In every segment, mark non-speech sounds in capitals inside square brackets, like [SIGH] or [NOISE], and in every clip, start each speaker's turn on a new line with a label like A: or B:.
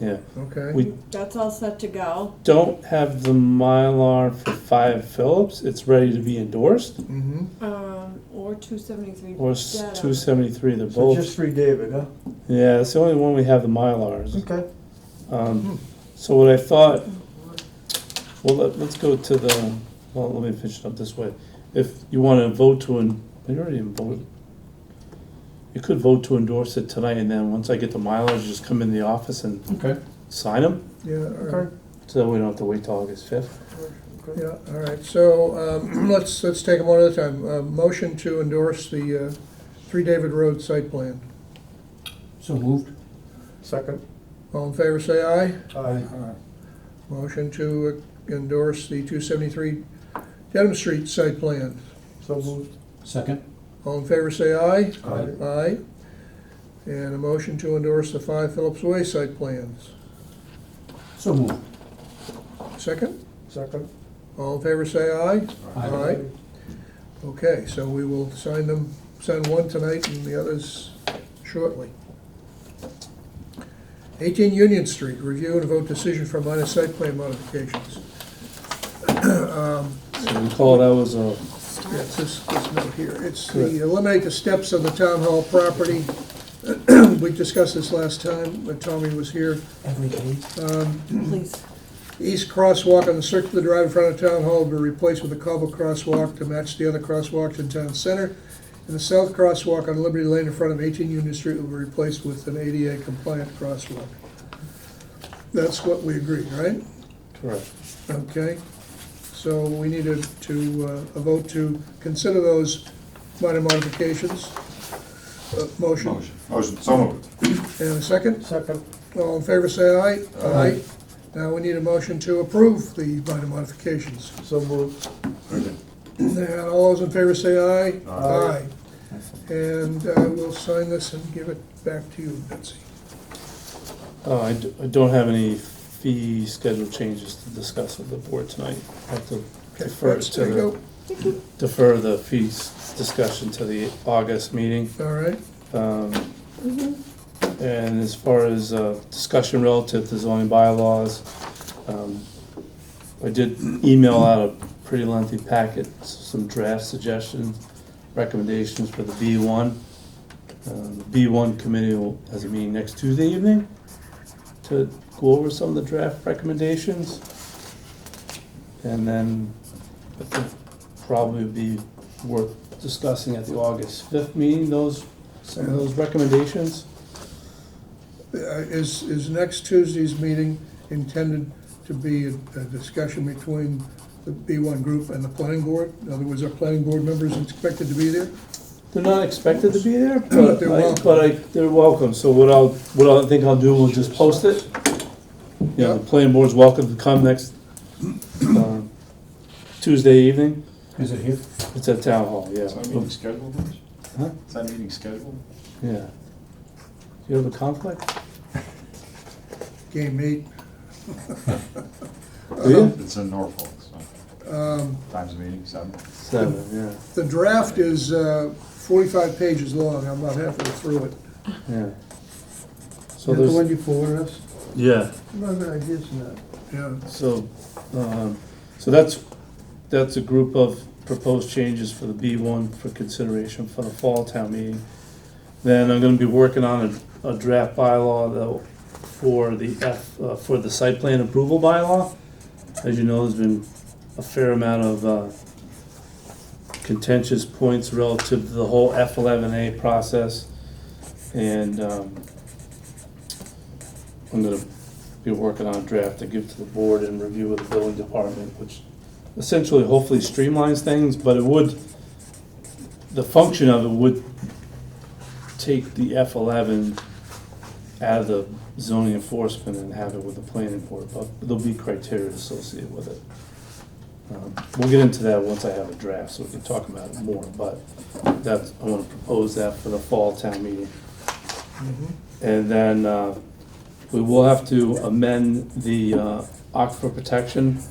A: Yeah,
B: Okay,
A: we
C: That's all set to go.
A: don't have the Mylar for five Phillips. It's ready to be endorsed.
B: mm-hmm,
C: Um, or two seventy-three.
A: Or two seventy-three, they're
D: So
A: both.
D: just three David, huh?
A: Yeah, it's the only one we have the Mylars.
D: Okay.
B: Hmm.
D: Hmm.
A: Um, so what I thought, well, let, let's go to the, well, let me finish it up this way. If you wanna vote to, en- you already voted. You could vote to endorse it tonight and then once I get the Mylars, just come in the office and
D: Okay.
A: sign them.
B: yeah, all right,
D: Okay.
A: So that we don't have to wait till August fifth.
B: yeah, all right, so, um, [CLEARS THROAT] let's, let's take them one at a time. Uh, motion to endorse the, uh, Three David Road site plan.
D: So moved. Second.
B: All in favor, say aye.
D: Aye.
B: Motion to endorse the two seventy-three Dedham Street site plan.
D: So moved.
E: Second?
B: All in favor, say aye.
D: Aye.
B: Aye. And a motion to endorse the five Phillips Way site plans.
E: So moved.
B: Second,
D: Second.
B: all in favor, say aye.
E: Aye.
B: Aye. Okay, so we will sign them, sign one tonight and the others shortly. 18 Union Street, review and vote decision for minor site plan modifications.
A: So we call that was a,
B: Yeah, it's this, this note here. It's the eliminate the steps on the town hall property. [CLEARS THROAT] We discussed this last time when Tommy was here.
D: Every day.
C: Please.
B: East crosswalk on the circular drive in front of Town Hall will be replaced with a cobble crosswalk to match the other crosswalks in Town Center. And the south crosswalk on Liberty Lane in front of 18 Union Street will be replaced with an ADA compliant crosswalk. That's what we agreed, right?
A: correct.
B: Okay, so we needed to, uh, a vote to consider those minor modifications. Uh, Motion,
F: Motion. Motion, so moved.
B: and a second?
D: Second.
B: All in favor, say aye. Aye. Now we need a motion to approve the minor modifications.
D: So moved.
B: And all those in favor say aye.
D: Aye.
B: And uh, we'll sign this and give it back to you, Betsy.
A: Uh, I d- I don't have any fee schedule changes to discuss with the board tonight. I have to
B: Okay,
A: defer it
B: Betsy,
A: to
B: there you
A: the, defer the fees discussion to the August meeting.
B: go. All right,
A: Um, And as far as uh, discussion relative to zoning bylaws, um, I did email out a pretty lengthy packet, s- some draft suggestions, recommendations for the B1. Um, The B1 committee will, has a meeting next Tuesday evening to go over some of the draft recommendations. And then I think probably be worth discussing at the August 5th meeting, those, some of those recommendations.
B: Uh, is, is next Tuesday's meeting intended to be a a discussion between the B1 group and the planning board? In other words, are planning board members expected to be there?
A: They're not expected to be there, but
B: They're
A: I,
B: welcome.
A: but I, they're welcome, so what I'll, what I think I'll do, we'll just post it. You know, the planning board's welcome to come next, um, Tuesday evening,
E: Is it here?
A: it's at Town Hall, yeah.
F: Is that meeting scheduled, Rich?
A: Huh?
F: Is that meeting scheduled?
A: Yeah. Do you have a conflict?
B: Game eight.
A: Do you?
F: It's in Norfolk, so,
B: Um,
F: times meeting, seven.
A: Seven, yeah,
B: The draft is uh, 45 pages long, I'm about halfway through it.
A: yeah. So
D: Is that the one
A: there's,
D: you forwarded us?
A: yeah.
D: I'm not gonna guess that.
B: Yeah,
A: So, um, so that's, that's a group of proposed changes for the B one for consideration for the fall town meeting. Then I'm gonna be working on a, a draft bylaw though, for the F, uh, for the site plan approval bylaw. As you know, there's been a fair amount of, uh, contentious points relative to the whole F eleven A process. And, um, I'm gonna be working on a draft to give to the board and review with the building department, which essentially hopefully streamlines things, but it would, the function of it would take the F eleven out of the zoning enforcement and have it with the planning board, but there'll be criteria associated with it. Um, We'll get into that once I have a draft, so we can talk about it more, but that's, I wanna propose that for the fall town meeting.
B: Mm-hmm.
A: And then, uh, we will have to amend the uh, aquifer protection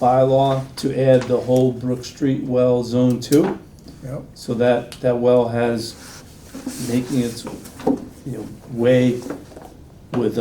A: bylaw to add the whole Brook Street well zone two.
B: yeah.
A: So that, that well has making its, you know, way with